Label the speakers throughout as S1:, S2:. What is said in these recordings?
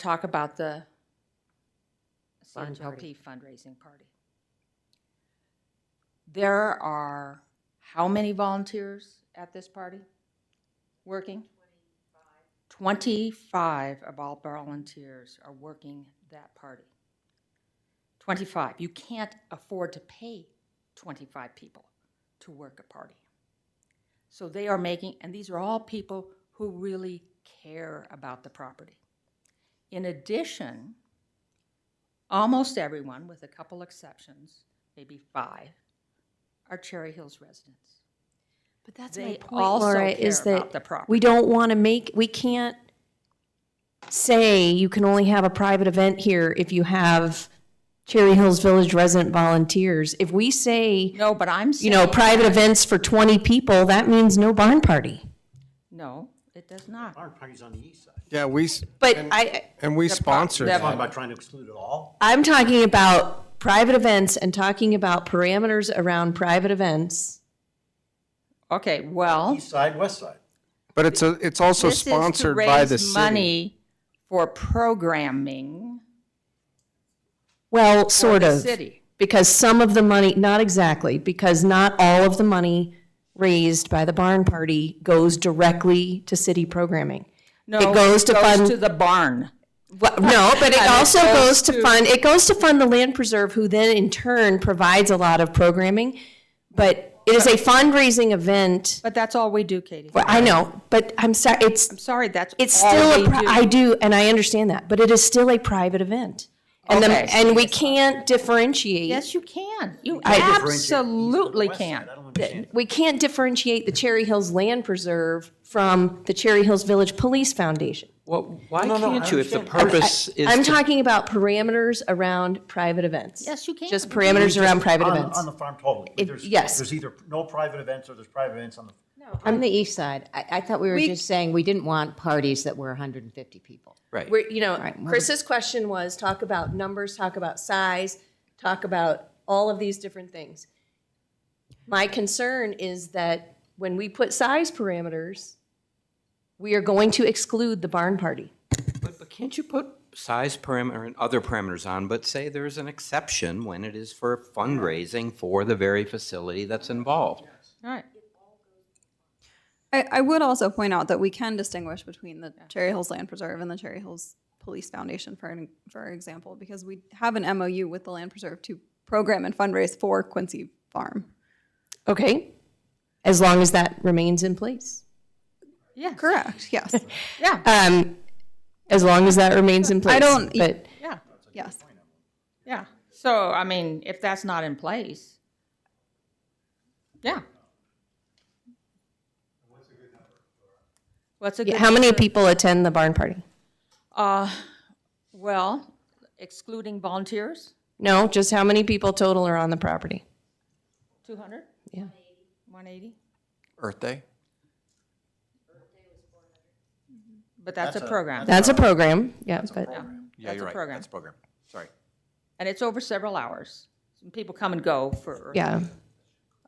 S1: talk about the,
S2: Fun party.
S1: CHLP fundraising party. There are how many volunteers at this party working? Twenty-five of all volunteers are working that party. Twenty-five. You can't afford to pay twenty-five people to work a party. So they are making, and these are all people who really care about the property. In addition, almost everyone, with a couple exceptions, maybe five, are Cherry Hills residents.
S2: But that's my
S1: They
S2: point,
S1: also
S2: Laura,
S1: care
S2: is
S1: about the
S2: that
S1: property.
S2: we don't want to make, we can't say you can only have a private event here if you have Cherry Hills Village resident volunteers. If we say,
S1: No, but I'm
S2: you
S1: saying.
S2: know, private events for 20 people, that means no barn party.
S1: No, it does not.
S3: Barn parties on the east side.
S4: Yeah, we, s-
S2: But I,
S4: and we sponsor
S1: the-
S4: that.
S3: Talking about trying to exclude it all?
S2: I'm talking about private events and talking about parameters around private events.
S1: Okay, well.
S3: East side, west side.
S4: But it's, a. it's also
S1: This is to
S4: sponsored by the
S1: raise
S4: city.
S1: Money for programming
S2: Well,
S1: for
S2: sort
S1: the
S2: of.
S1: city.
S2: Because some of the money, not exactly, because not all of the money raised by the barn party goes directly to city programming.
S1: No,
S2: It goes to fund-
S1: To the barn.
S2: Well, no, but it
S1: And it
S2: also
S1: goes
S2: goes to
S1: to-
S2: fund, it goes to fund the land preserve, who then in turn provides a lot of programming. But it is a fundraising event,
S1: But that's all we do, Katie.
S2: Well, I know, but I'm sorry, it's,
S1: I'm sorry, that's
S2: it's
S1: all we
S2: still, a
S1: do.
S2: pri- I Oh, do, and I understand that, but it is still a private event. And the,
S1: Okay.
S2: and we can't differentiate,
S1: Yes, you can. You
S3: Differentiate east and
S1: absolutely
S3: west side.
S1: can.
S3: I don't understand.
S2: we can't differentiate the Cherry Hills Land Preserve from the Cherry Hills Village Police Foundation.
S5: Well, why
S3: No, no, I
S5: can't you if the
S3: understand. I'm-
S5: purpose is
S2: I'm
S5: to
S2: talking about parameters around private events.
S1: Yes, you can.
S2: Just parameters around private
S3: On-
S2: events.
S3: On the farm totally.
S2: It-
S3: There's-
S2: yes.
S3: There's either no private events or there's private events on the,
S6: On the east side, I, I thought we were just saying we didn't want parties that were 150 people.
S5: Right.
S2: We're, you know, Chris's question was, talk about numbers, talk about size, talk about all of these different things. My concern is that when we put size parameters, we are going to exclude the barn party.
S5: But, but can't you put size parameter and other parameters on, but say there's an exception when it is for fundraising for the very facility that's involved?
S1: All right.
S7: I, I would also point out that we can distinguish between the Cherry Hills Land Preserve and the Cherry Hills Police Foundation, for an, for example, because we have an MOU with the Land Preserve to program and fundraise for Quincy Farm.
S2: Okay? As long as that remains in place.
S1: Yeah,
S7: Correct. Yes.
S1: yeah,
S2: Um, as long as that remains in place.
S7: don't-
S2: But
S1: yeah,
S7: yes.
S1: yeah. So, I mean, if that's not in place, yeah. What's a good
S2: Yeah,
S1: number?
S2: how many people attend the barn party?
S1: What's a good, uh, well, excluding volunteers,
S2: No, just how many people total are on the property?
S1: two hundred?
S2: Yeah.
S1: One eighty?
S4: Earth Day?
S1: Mm-hmm. But that's a program,
S2: That's a program, yeah, but,
S4: Yeah,
S1: you're right. program. That's a
S4: program. Sorry.
S1: and it's over several hours. People come and go for.
S2: yeah.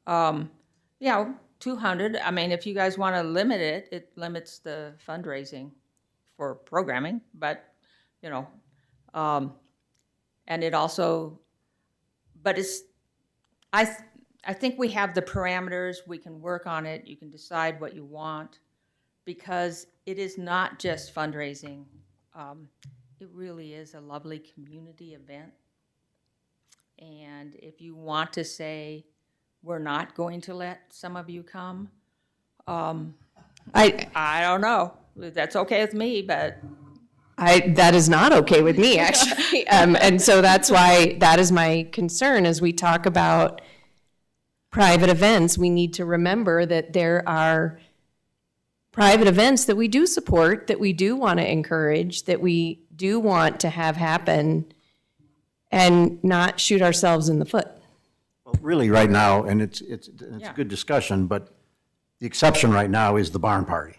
S1: you know, 200. I mean, if you guys want to limit it, it limits the fundraising for programming, but, you know, um, and it also, but it's, I, th- I think we have the parameters. We can work on it. You can decide what you want because it is not just fundraising. Um, it really is a lovely community event. And if you want to say, we're not going to let some of you come.
S2: I,
S1: I don't know. That's okay with me, but
S2: I, that is not okay with me, actually. Um, and so that's why, that is my concern, as we talk about private events, we need to remember that there are private events that we do support, that we do want to encourage, that we do want to have happen, and not shoot ourselves in the foot.
S3: Well, really, right now, and it's, it's, it's a good discussion, but the exception right now is the barn party.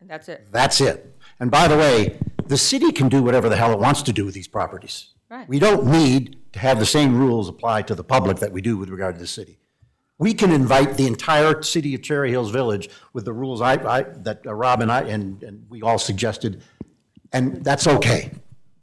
S1: and that's it.
S3: That's it. And by the way, the city can do whatever the hell it wants to do with these properties.
S1: Right.
S3: We don't need to have the same rules apply to the public that we do with regard to the city. We can invite the entire city of Cherry Hills Village with the rules I, I, that Rob and I, and, and we all suggested, and that's okay.